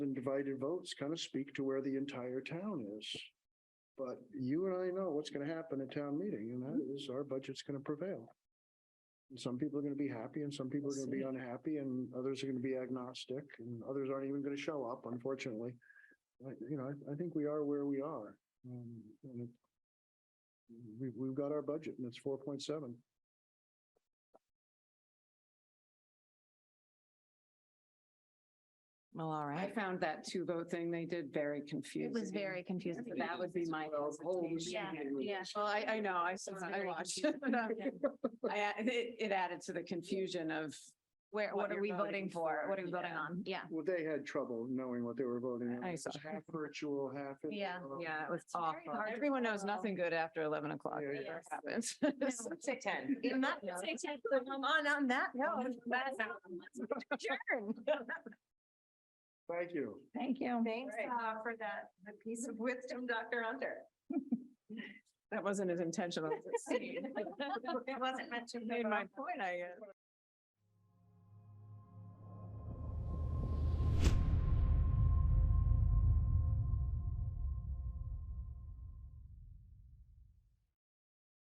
divided votes kind of speak to where the entire town is. But you and I know what's going to happen at town meeting, and that is our budget's going to prevail. And Some people are going to be happy and some people are going to be unhappy and others are going to be agnostic and others aren't even going to show up, unfortunately. Like, you know, I, I think we are where we are. Um, and it- We, we've got our budget and it's four point seven. Well, all I right. found that two vote thing they did very It confusing. was very confusing. So That would be my hesitation. Yeah, Yeah, well, I, I know, I saw, It's I very watched. confusing. I, it, it added to the confusion of, Where, what what are you're we voting voting for? for, What are we voting yeah. on? Yeah. Well, they had trouble knowing what they were voting on. I It was saw. Half virtual, half. in- Yeah. yeah, it was very awful. hard to Everyone knows follow. nothing good after eleven o'clock. Yeah, It yeah. never happens. Six ten. On on that note. that's- let's adjourn. Thank you. Thank you. Thanks uh, for that, the piece of wisdom, Dr. Hunter. That wasn't as intentional. as it seemed. It wasn't meant to. be, Made but my point, I guess.